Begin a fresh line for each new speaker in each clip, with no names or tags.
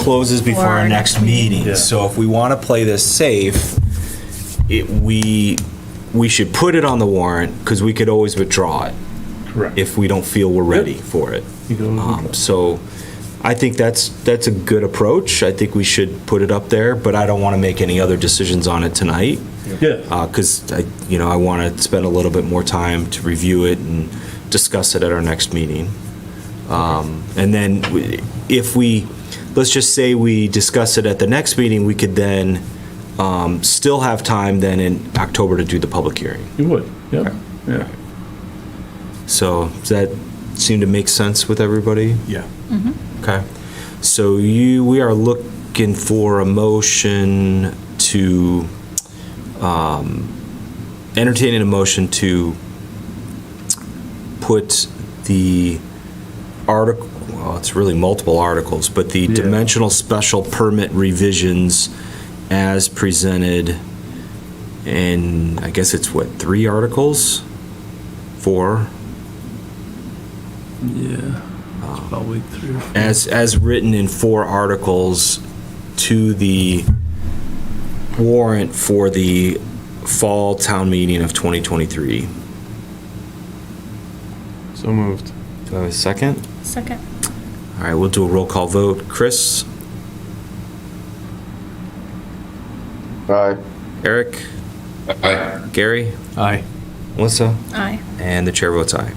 closes before our next meeting. So if we want to play this safe, it, we, we should put it on the warrant because we could always withdraw it
Correct.
if we don't feel we're ready for it.
You can always
Um, So I think that's, that's a good approach. I think we should put it up there, but I don't want to make any other decisions on it tonight.
Yeah,
Because Uh, I, you know, I want to spend a little bit more time to review it and discuss it at our next meeting. Um, And then we- if we, let's just say we discuss it at the next meeting, we could then um, still have time then in October to do the public hearing.
you would, yeah, yeah.
So does that seem to make sense with everybody?
Yeah.
Okay. So you, we are looking for a motion to, um, entertaining a motion to put the article, well, it's really multiple articles, but the
Yeah.
dimensional special permit revisions as presented in, I guess it's what, three articles? Four?
Yeah, it's probably three.
as, as written in four articles to the warrant for the fall town meeting of 2023. Do
So moved.
I have a second?
Second.
All right, we'll do a roll call vote. Chris,
Aye.
Eric,
Aye.
Gary,
Aye.
Melissa,
Aye.
and the chair votes aye.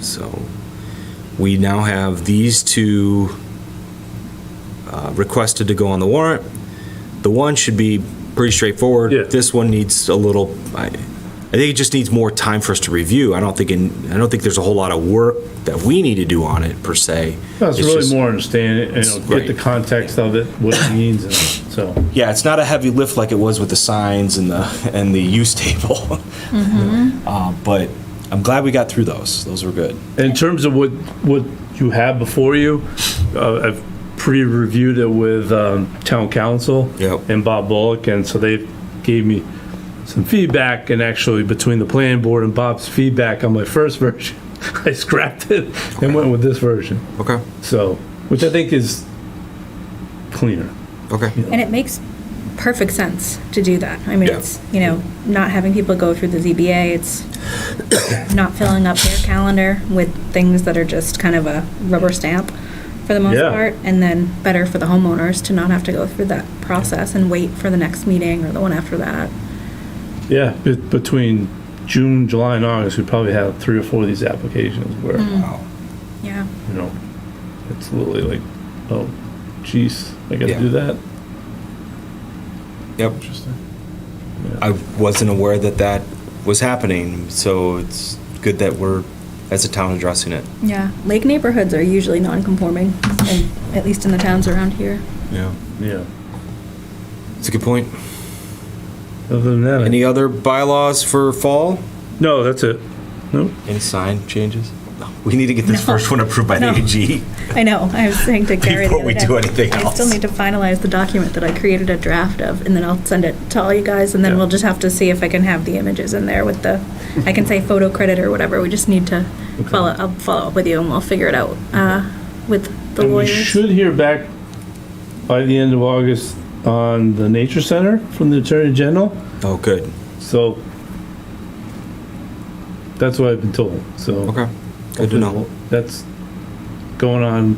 So we now have these two uh, requested to go on the warrant. The one should be pretty straightforward.
Yeah.
This one needs a little, I, I think it just needs more time for us to review. I don't think, in- I don't think there's a whole lot of work that we need to do on it per se.
That's
It's
really
just-
more understanding, you know, get the
Right.
context of it, what it means, and so.
Yeah, it's not a heavy lift like it was with the signs and the, and the use table. Uh, But I'm glad we got through those. Those were good.
In terms of what, what you have before you, uh, I've pre-reviewed it with, um, town council.
Yep.
And Bob Bullock, and so they gave me some feedback, and actually between the planning board and Bob's feedback on my first version, I scrapped it and went with this version,
Okay,
so, which I think is cleaner.
okay.
And it makes perfect sense to do that. I mean,
Yeah.
it's, you know, not having people go through the ZBA, it's not filling up their calendar with things that are just kind of a rubber stamp for the most
Yeah.
part. And then better for the homeowners to not have to go through that process and wait for the next meeting or the one after that.
Yeah, be- between June, July, and August, we probably had three or four of these applications where,
Hmm. Yeah.
you know, it's literally like, oh, jeez, I
Yeah.
gotta do that?
Yep. I wasn't aware that that was happening, so it's good that we're, as a town, addressing it.
Yeah. Lake neighborhoods are usually non-conforming, and at least in the towns around here.
Yeah.
Yeah.
It's a good point.
Other than that, I-
Any other bylaws for fall?
no, that's it. No,
Any sign changes? We need to get this
No.
first one approved by the
No.
AG.
I know, I was saying to Gary the
Before
other
we
day,
do anything
I still
else.
need to finalize the document that I created a draft of, and then I'll send it to all you guys, and then
Yeah.
we'll just have to see if I can have the images in there with the, I can say photo credit or whatever, we just need to follow, I'll follow up with you and we'll figure it out, uh, with the
And we
lawyers.
should hear back by the end of August on the Nature Center from the Attorney General,
Oh, good.
so that's what I've been told, so.
Okay. Good to know.
That's going on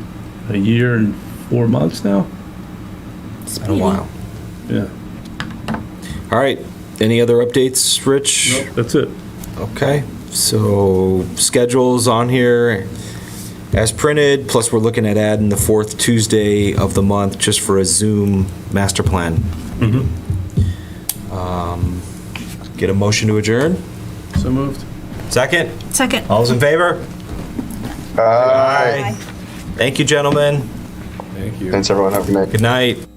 a year and four months now?
Been a
Speedy.
while.
Yeah,
All right. Any other updates, Rich?
that's it.
Okay, so schedule's on here as printed, plus we're looking at adding the fourth Tuesday of the month just for a Zoom master plan. Um, Get a motion to adjourn?
So moved.
Second?
Second.
All's in favor?
Aye.
Thank you, gentlemen.
Thank you.
Thanks, everyone. Have a good night.
Good night.